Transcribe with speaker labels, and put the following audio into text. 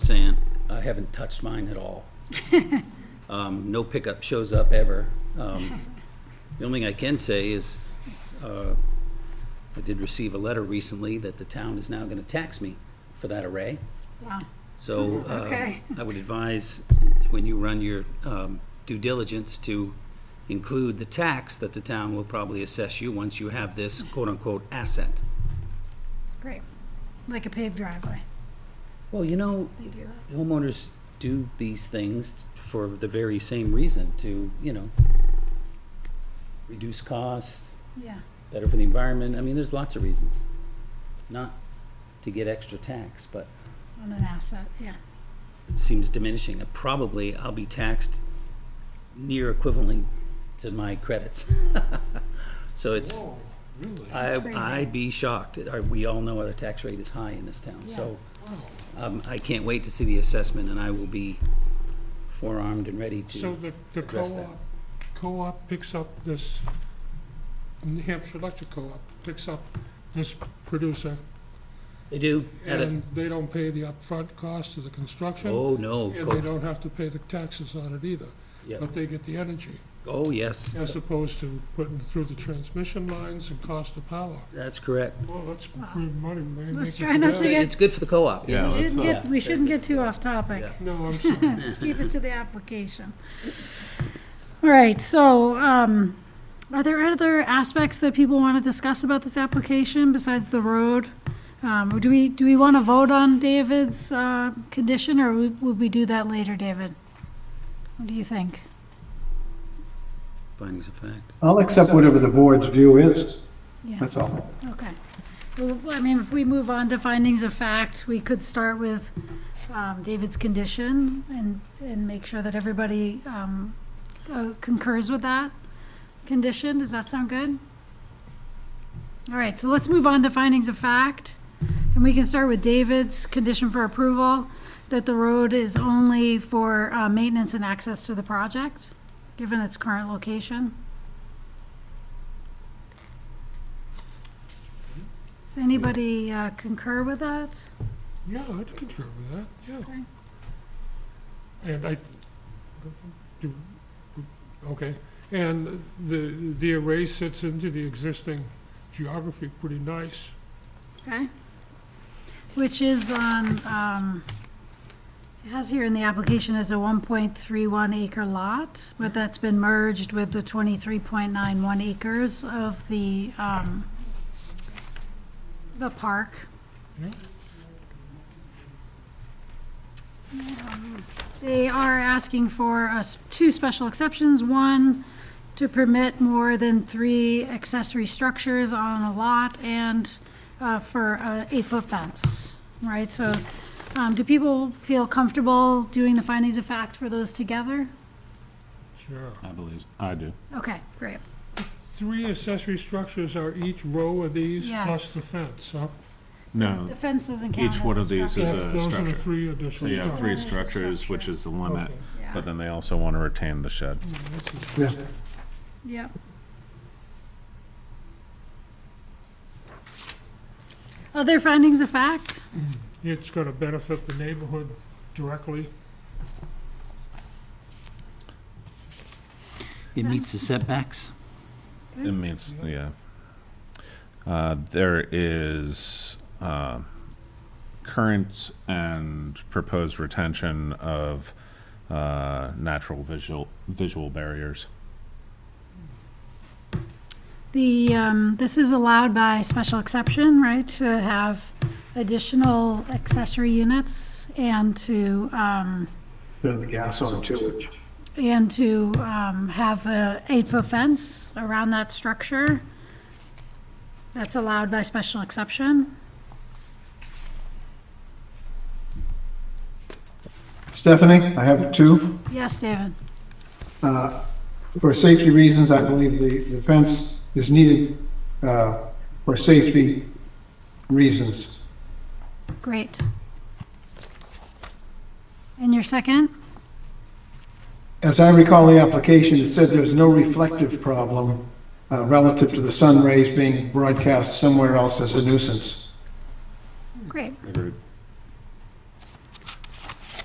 Speaker 1: sand. I haven't touched mine at all. Um, no pickup shows up ever. Um, the only thing I can say is, uh, I did receive a letter recently that the town is now gonna tax me for that array.
Speaker 2: Wow.
Speaker 1: So, uh,
Speaker 2: Okay.
Speaker 1: I would advise, when you run your, um, due diligence, to include the tax that the town will probably assess you once you have this quote-unquote asset.
Speaker 2: Great. Like a paved driveway.
Speaker 1: Well, you know,
Speaker 2: They do that.
Speaker 1: homeowners do these things for the very same reason, to, you know, reduce costs,
Speaker 2: Yeah.
Speaker 1: better for the environment, I mean, there's lots of reasons. Not to get extra tax, but
Speaker 2: On an asset. Yeah.
Speaker 1: it seems diminishing, and probably I'll be taxed near equivalently to my credits. So it's,
Speaker 3: Oh, really?
Speaker 1: I,
Speaker 2: crazy.
Speaker 1: I'd be shocked, Our- we all know our tax rate is high in this town,
Speaker 2: Yeah.
Speaker 1: so.
Speaker 3: Wow.
Speaker 1: Um, I can't wait to see the assessment, and I will be forearmed and ready
Speaker 3: So
Speaker 1: to.
Speaker 3: the, the
Speaker 1: address that.
Speaker 3: co-op, co-op picks up this, New Hampshire Electric Co-op picks up this producer,
Speaker 1: They do, at a-
Speaker 3: and they don't pay the upfront cost of the construction,
Speaker 1: oh, no, of
Speaker 3: and they
Speaker 1: course,
Speaker 3: don't have to pay the taxes on it either,
Speaker 1: yeah,
Speaker 3: but they get the energy,
Speaker 1: oh, yes,
Speaker 3: as opposed to putting through the transmission lines and cost of power.
Speaker 1: that's correct.
Speaker 3: Well, that's good money, man.
Speaker 2: Let's
Speaker 3: Thank
Speaker 2: try
Speaker 3: you
Speaker 2: not
Speaker 3: for
Speaker 2: to
Speaker 3: that.
Speaker 2: get,
Speaker 1: It's good for the co-op.
Speaker 4: Yeah,
Speaker 2: we
Speaker 4: let's
Speaker 2: shouldn't
Speaker 4: not-
Speaker 2: get, we shouldn't get too off topic.
Speaker 1: Yeah.
Speaker 3: No, I'm sorry.
Speaker 2: Let's keep it to the application. All right, so, um, are there other aspects that people want to discuss about this application besides the road? Um, do we, do we want to vote on David's, uh, condition, or we- would we do that later, David? What do you think?
Speaker 1: Findings of fact.
Speaker 5: I'll accept whatever the board's view is,
Speaker 2: Yeah,
Speaker 5: that's all.
Speaker 2: okay. Well, I mean, if we move on to findings of fact, we could start with, um, David's condition and, and make sure that everybody, um, uh, concurs with that condition. Does that sound good? All right, so let's move on to findings of fact. And we can start with David's condition for approval, that the road is only for, uh, maintenance and access to the project, given its current location. Does anybody uh, concur with that?
Speaker 3: Yeah, I'd concur with that,
Speaker 2: Okay.
Speaker 3: yeah. And I, do, okay, and the, the array sits into the existing geography pretty nice.
Speaker 2: Okay. Which is on, um, it has here in the application as a 1.31 acre lot, but that's been merged with the 23.91 acres of the, um, the park.
Speaker 3: Yeah.
Speaker 2: Um, They are asking for us, two special exceptions. One, to permit more than three accessory structures on a lot and uh, for an eight-foot fence, right? So um, do people feel comfortable doing the findings of fact for those together?
Speaker 3: Sure.
Speaker 4: I believe, I do.
Speaker 2: Okay, great.
Speaker 3: Three accessory structures are each row of these
Speaker 2: Yes.
Speaker 3: plus the fence, huh?
Speaker 4: No,
Speaker 2: The fence doesn't count
Speaker 4: Um, each one
Speaker 2: as
Speaker 4: of
Speaker 2: a
Speaker 4: these is
Speaker 2: structure.
Speaker 4: a
Speaker 3: Those are the
Speaker 4: structure.
Speaker 3: three
Speaker 4: so
Speaker 3: additional
Speaker 4: you have three
Speaker 3: structures.
Speaker 4: structures, which is the limit,
Speaker 3: Okay.
Speaker 4: but
Speaker 2: Yeah,
Speaker 4: then they also want to retain the shed.
Speaker 5: Yeah.
Speaker 2: yep. Other findings of fact?
Speaker 3: It's gonna benefit the neighborhood directly.
Speaker 1: It meets the setbacks.
Speaker 4: It means, yeah. Uh, There is uh, current and proposed retention of uh, natural visual, visual barriers.
Speaker 2: The, um, this is allowed by special exception, right, to have additional accessory units and to, um,
Speaker 5: Turn the gas on too.
Speaker 2: and to, um, have a eight-foot fence around that structure. That's allowed by special exception.
Speaker 5: Stephanie, I have two.
Speaker 2: Yes, David?
Speaker 5: Uh, For safety reasons, I believe the, the fence is needed uh, for safety reasons.
Speaker 2: Great. And your second?
Speaker 5: As I recall the application, it said there's no reflective problem uh, relative to the sun rays being broadcast somewhere else as a nuisance.
Speaker 2: Great.
Speaker 4: Agreed.